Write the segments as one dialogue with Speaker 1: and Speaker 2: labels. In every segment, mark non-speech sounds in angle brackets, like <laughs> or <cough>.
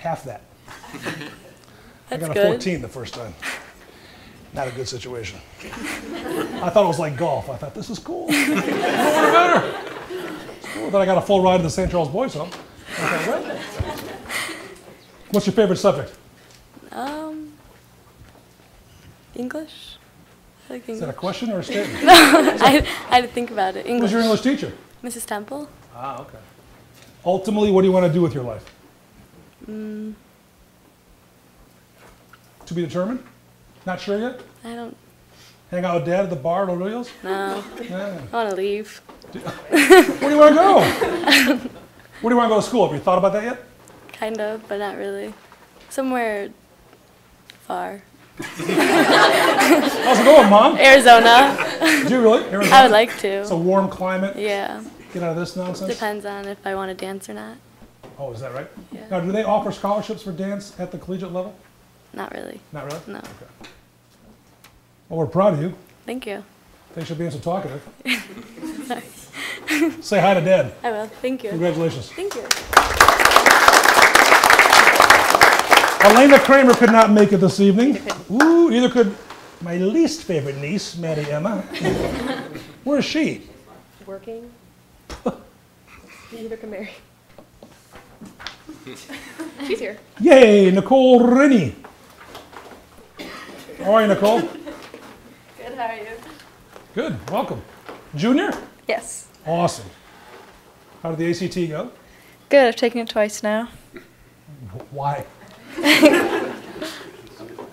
Speaker 1: Half that.
Speaker 2: That's
Speaker 1: I got a
Speaker 2: good.
Speaker 1: 14 the first time. Not a good situation. I thought it was like golf. I thought this is <laughs> cool. I don't want to better. It's cool. Then I got a full ride to the St. Charles Boys Home. I thought, well. What's your favorite subject?
Speaker 2: Um, English. I like
Speaker 1: Is that a
Speaker 2: English.
Speaker 1: question or a statement?
Speaker 2: I, <laughs> I had to think about it.
Speaker 1: Who was
Speaker 2: English.
Speaker 1: your English teacher?
Speaker 2: Mrs. Temple.
Speaker 1: Ah, okay. Ultimately, what do you want to do with your life?
Speaker 2: Mm.
Speaker 1: To be determined? Not sure yet?
Speaker 2: I don't
Speaker 1: Hang out with dad at the bar at O'Reilly's?
Speaker 2: know.
Speaker 1: Yeah.
Speaker 2: I want to leave.
Speaker 1: Where do you want to go? Where do you want to go to school? Have you thought about that yet?
Speaker 2: Kind of, but not really. Somewhere far.
Speaker 1: How's it going,
Speaker 2: <laughs>
Speaker 1: mom? <laughs>
Speaker 2: Arizona.
Speaker 1: Do you really? Arizona?
Speaker 2: I would like
Speaker 1: It's a
Speaker 2: to.
Speaker 1: warm climate.
Speaker 2: Yeah.
Speaker 1: Get out of this nonsense.
Speaker 2: Depends on if I want to dance or not.
Speaker 1: Oh, is that right?
Speaker 2: Yeah.
Speaker 1: Now, do they offer scholarships for dance at the collegiate level?
Speaker 2: Not really.
Speaker 1: Not really?
Speaker 2: No.
Speaker 1: Well, we're proud of you.
Speaker 2: Thank you.
Speaker 1: Thanks for being so
Speaker 2: <laughs>
Speaker 1: talkative. Say hi to dad.
Speaker 2: I will. Thank you.
Speaker 1: Congratulations.
Speaker 2: Thank you.
Speaker 1: Elena Kramer could not make it this evening. Ooh, neither could my least favorite niece, Maddie
Speaker 2: <laughs>
Speaker 1: Emma. Where is she?
Speaker 3: <laughs>
Speaker 4: working. Neither can Mary. She's here.
Speaker 1: Yay, Nicole Rennie. How are you, Nicole?
Speaker 4: Good, how are you?
Speaker 1: Good, welcome. Junior?
Speaker 4: Yes.
Speaker 1: Awesome. How did the ACT go?
Speaker 4: Good, I've taken it twice now.
Speaker 1: Why?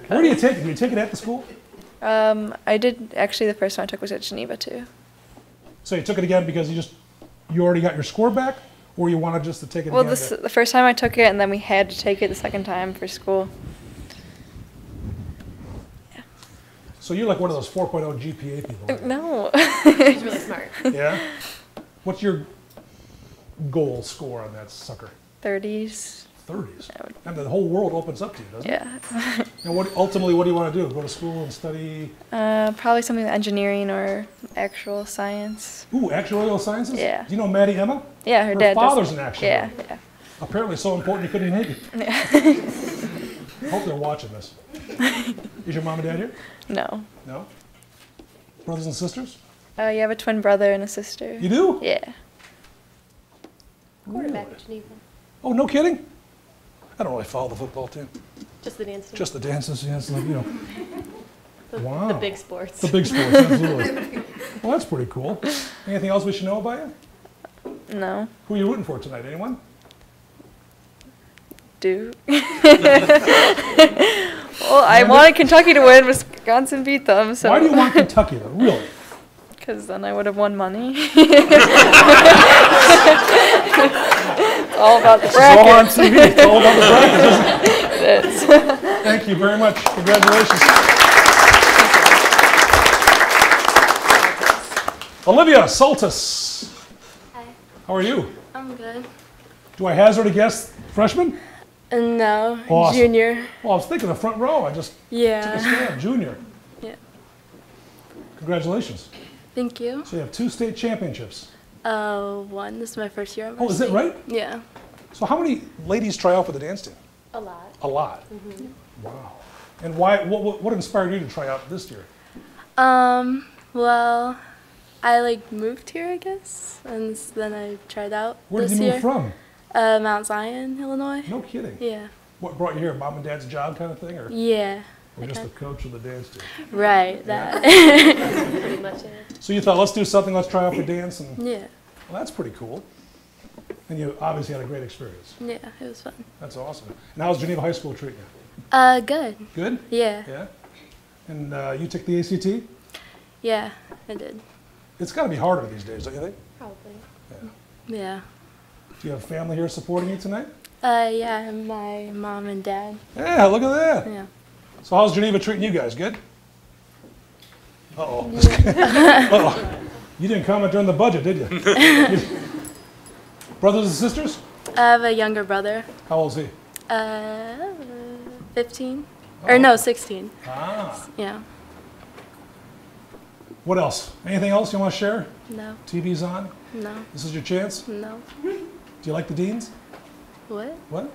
Speaker 1: Where do you take it? Do you take it at the school?
Speaker 4: Um, I did, actually, the first one I took was at Geneva too.
Speaker 1: So you took it again because you just, you already got your score back? Or you wanted just to take it
Speaker 4: Well,
Speaker 1: again?
Speaker 4: this, the first time I took it, and then we had to take it the second time for school.
Speaker 1: So you're like one of those 4.0 GPA people.
Speaker 4: <laughs> No.
Speaker 3: She's really smart.
Speaker 1: Yeah. What's your goal score on that sucker?
Speaker 4: 30s.
Speaker 1: Thirties. And the whole world opens up to you, doesn't
Speaker 4: Yeah.
Speaker 1: it? And what ultimately, what do you want to do? Go to school and study?
Speaker 4: Uh, probably something with engineering or actual science.
Speaker 1: Ooh, actuarial sciences.
Speaker 4: Yeah.
Speaker 1: Do you know Maddie Emma?
Speaker 4: Yeah, her,
Speaker 1: Her
Speaker 4: dad. does-
Speaker 1: father's an actuary.
Speaker 4: Yeah, yeah.
Speaker 1: Apparently, so important you couldn't hate it. I hope they're watching
Speaker 4: <laughs>
Speaker 1: this. Is your mom and dad here?
Speaker 4: No.
Speaker 1: No. Brothers and sisters?
Speaker 4: Uh, you have a twin brother and a sister.
Speaker 1: You do?
Speaker 4: Yeah.
Speaker 3: Quarterback at Geneva.
Speaker 1: Oh, no kidding. I don't really follow the football team.
Speaker 3: Just the dance team.
Speaker 1: Just the dances, yeah, it's like you know.
Speaker 3: the,
Speaker 1: wow.
Speaker 3: the big sports.
Speaker 1: The big sports,
Speaker 3: <laughs>
Speaker 1: absolutely. Well, that's pretty cool. Anything else we should know about you?
Speaker 4: No.
Speaker 1: Who are you rooting for tonight? Anyone? <laughs>
Speaker 4: Do. <laughs> well, I wanted Kentucky to win. Wisconsin beat them, so.
Speaker 1: Why do you want Kentucky though?
Speaker 4: <laughs>
Speaker 1: Really?
Speaker 4: Because then I would have won money. <laughs> it's all about the
Speaker 1: It's all
Speaker 4: bracket.
Speaker 1: on TV. It's all about the brackets.
Speaker 4: <laughs>
Speaker 1: isn't it? Thank you very much. Congratulations. Olivia Saltis.
Speaker 2: Hi.
Speaker 1: How are you?
Speaker 2: I'm good.
Speaker 1: Do I hazard a guess? Freshman?
Speaker 2: And now,
Speaker 1: Awesome.
Speaker 2: junior.
Speaker 1: Well, I was thinking the front row. I
Speaker 4: <laughs>
Speaker 1: just took a
Speaker 2: Yeah.
Speaker 1: stab. Junior.
Speaker 2: Yeah.
Speaker 1: Congratulations.
Speaker 2: Thank you.
Speaker 1: So you have two state championships.
Speaker 2: Uh, one. This is my first year. at
Speaker 1: Oh, is that
Speaker 2: varsity.
Speaker 1: right?
Speaker 2: Yeah.
Speaker 1: So how many ladies try out for the dance team?
Speaker 3: a lot.
Speaker 1: A lot.
Speaker 2: Mm-hmm.
Speaker 1: Wow. And why? What, what, what inspired you to try out this year?
Speaker 2: Um, well, I like moved here, I guess, and s- then I tried out
Speaker 1: Where
Speaker 2: this
Speaker 1: did you
Speaker 2: year.
Speaker 1: move from?
Speaker 2: Uh, Mount Zion, Illinois.
Speaker 1: No kidding.
Speaker 2: Yeah.
Speaker 1: What brought you here? Mom and dad's job kind of thing, or,
Speaker 2: Yeah.
Speaker 1: or just the
Speaker 2: okay.
Speaker 1: coach of the dance team?
Speaker 2: Right. That.
Speaker 3: Pretty much it.
Speaker 1: So you thought, let's do something. Let's try out for dance, and well,
Speaker 2: yeah.
Speaker 1: that's pretty cool. And you obviously had a great experience.
Speaker 2: Yeah. It was fun.
Speaker 1: That's awesome. And how's Geneva High School treating you?
Speaker 2: Uh, good.
Speaker 1: Good.
Speaker 2: Yeah. Yeah.
Speaker 1: Yeah. And uh, you took the ACT.
Speaker 2: I did.
Speaker 1: It's got to be harder these days, don't you think?
Speaker 3: Probably.
Speaker 2: Yeah.
Speaker 1: Do you have family here supporting you tonight?
Speaker 2: Uh, yeah. and My mom and dad.
Speaker 1: Yeah. Look at that.
Speaker 2: Yeah.
Speaker 1: So how's Geneva treating you guys? Good? Uh-oh. <laughs> Uh-oh. You didn't comment during the budget, did you? Brothers and sisters?
Speaker 2: I have a younger brother.
Speaker 1: How old is he?
Speaker 2: Uh, fifteen.
Speaker 1: Oh.
Speaker 2: Or no, sixteen.
Speaker 1: Ah.
Speaker 2: Yeah.
Speaker 1: What else? Anything else you want to share?
Speaker 2: No.
Speaker 1: TV's on.
Speaker 2: No.
Speaker 1: This is your chance.
Speaker 2: No.
Speaker 1: Do you like the Deans?
Speaker 2: What?
Speaker 1: What?